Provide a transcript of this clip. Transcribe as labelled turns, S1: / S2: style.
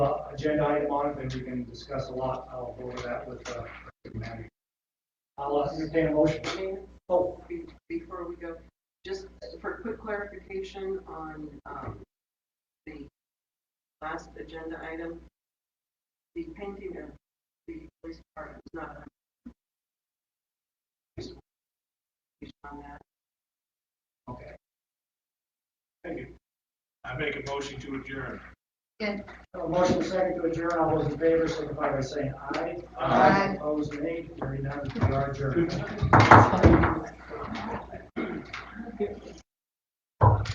S1: uh, agenda item on it, then we can discuss a lot. I'll go over that with, uh, Maddie. I'll uh, entertain a motion.
S2: Dan, oh, be- before we go, just for quick clarification on um, the last agenda item, the painting of the police department is not on. On that,
S1: Okay. Thank you.
S3: I make a motion to adjourn.
S1: A motion second to adjourn. All those in favor signify by saying aye.
S3: Aye.
S1: Opposed, nay. Hearing none, we are adjourned.